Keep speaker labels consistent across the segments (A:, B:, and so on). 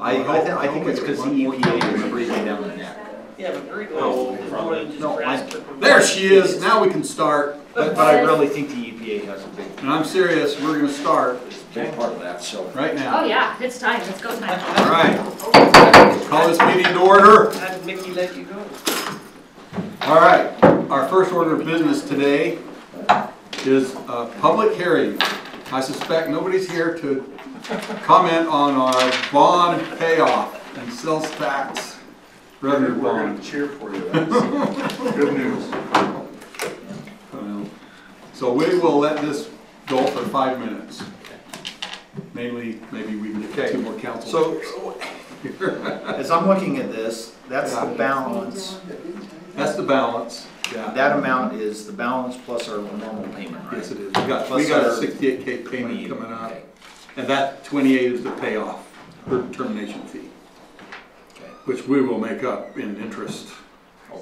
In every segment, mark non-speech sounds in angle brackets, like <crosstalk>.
A: I, I, thi- I think it's because the E EPA was breathing down the neck.
B: Yeah, but Bird
A: No,
B: Gold is more than just
A: no,
B: grass.
A: I-
B: but-
C: There she is, now we can start,
A: But, but I really think the EPA has a big,
C: and I'm serious, we're gonna start
A: big part of that, so.
C: right
D: Oh,
C: now.
D: yeah, it's time, it's go time.
C: All right, call this meeting to order.
B: How did Mickey let you go?
C: All right, our first order of business today is a public hearing. I suspect nobody's here to comment on our bond payoff and sales tax revenue
E: We're
C: bond.
E: gonna cheer for you.
A: <laughs>
E: That's Good news.
C: Well, So we will let this go for five minutes. Mainly, maybe we can get two more council.
A: So, as I'm looking at this, that's the
C: Yeah.
A: balance,
C: That's the balance, yeah.
A: that amount is the balance plus our normal payment, right?
C: Yes, it is. We got, we
A: Plus
C: got a
A: our
C: sixty-eight K payment
A: 28,
C: coming up,
A: okay,
C: and that twenty-eight is the payoff, or termination fee,
A: okay.
C: which we will make up in interest
A: Oh,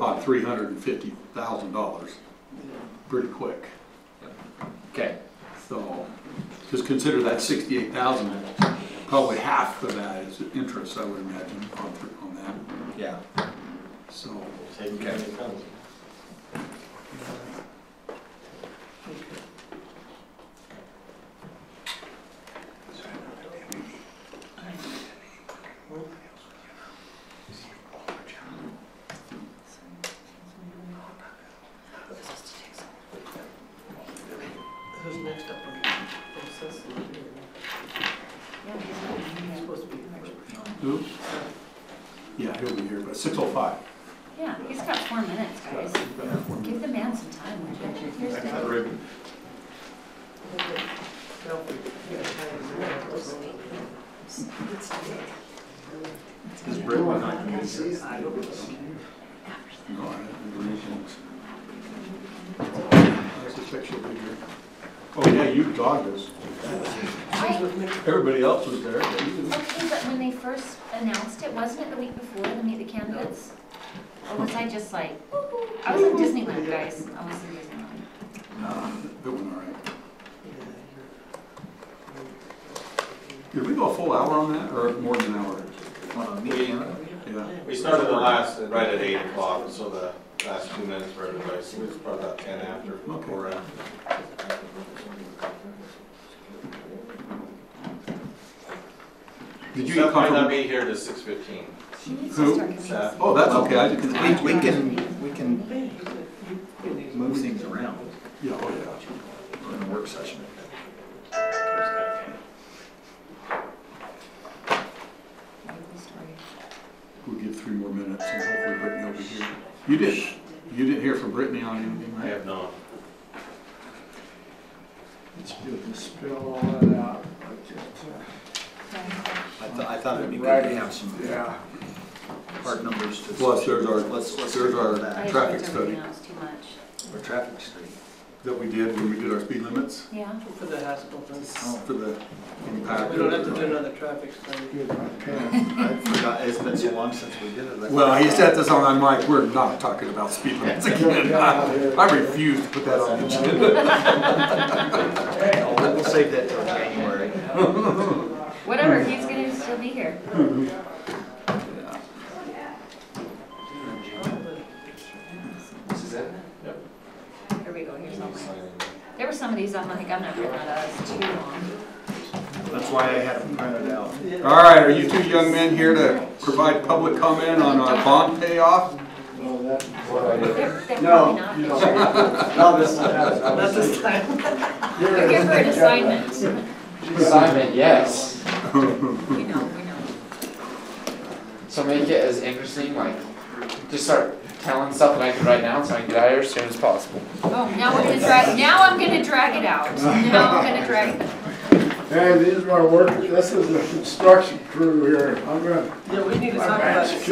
C: on
A: sure.
C: three hundred and fifty thousand dollars pretty quick.
A: Okay,
C: So just consider that sixty-eight thousand, probably half of that is interest, I would imagine, on, on that,
A: yeah,
C: so.
A: okay.
B: Who's next up on the process? He's supposed to be next.
C: Who? Yeah, he'll be here, but six oh five.
D: Yeah, he's got four minutes, guys. Give the man some time, would you? Here's the-
B: No, we- we got time.
A: Is Britt not here?
C: No, I haven't been reaching. I suspect she'll be here. Oh, yeah, you dogged us.
D: I-
C: Everybody else was there. but you didn't.
D: Okay, but when they first announced it, wasn't it the week before, the meet the candidates? Or was I just like, I was in Disneyland, guys, I was in Disneyland.
C: Nah, That went all right. Did we go a full hour on that, or more than an hour?
A: Want to meet him?
C: Yeah.
F: We started the last, right at eight o'clock, so the last two minutes for everybody, so it was probably about ten after,
C: Okay.
F: four after.
C: Did you
F: Seth
C: get
F: might not
C: confirmation?
F: be here to six fifteen.
D: She needs
C: Who?
D: to start giving us.
C: Oh, that's okay, I just.
A: We, we can, we can move things around
C: Yeah, oh, yeah.
A: in a work session.
C: We'll give three more minutes and hopefully Brittany will be here. You did, you didn't hear from Brittany on anything,
F: I
C: right?
F: have not.
E: It's good to spill all that out, but just,
A: I thought, I thought it'd be good to have some
E: uh, yeah.
A: hard numbers to.
C: Plus, there's our-
A: Let's, let's.
C: there's our-
D: I
A: that.
D: just
C: Traffic
D: looked at
C: study.
D: everything else Too much,
A: Our traffic study.
C: That we did when we did our speed limits
D: yeah.
B: For the hospital thing.
C: for the impact.
B: We don't have to do another traffic study.
E: Good, okay.
A: I forgot, it's been so long since we did it. I
C: Well, he
A: forgot.
C: said this on, I'm like, we're not talking about speed limits again. I I refuse to put that on the agenda.
A: Oh, We'll we'll save that till January.
D: Whatever, he's gonna still be here.
A: This is it?
D: Here we go, here's all mine.
F: Signing.
D: There were some of these, I'm like, I'm not gonna, that's too long.
A: That's why I had them printed out.
C: All right, are you two young men here to provide public comment on our bond payoff?
E: Well, that-
D: They're, they're
E: No,
D: probably not.
E: you don't. No, this is,
B: Not
E: that's.
B: this time.
D: They're here for an assignment.
G: Assignment, yes.
D: We know, we know.
G: So make it as interesting, like, just start telling stuff that I can write down so I can get out of here as soon as possible.
D: Oh, now we're gonna drag, now I'm gonna drag it out. Now I'm gonna drag,
E: And these are my work, this is the construction crew here, I'm gonna
B: Yeah, we need to
E: My
B: talk about
E: bad.
B: it.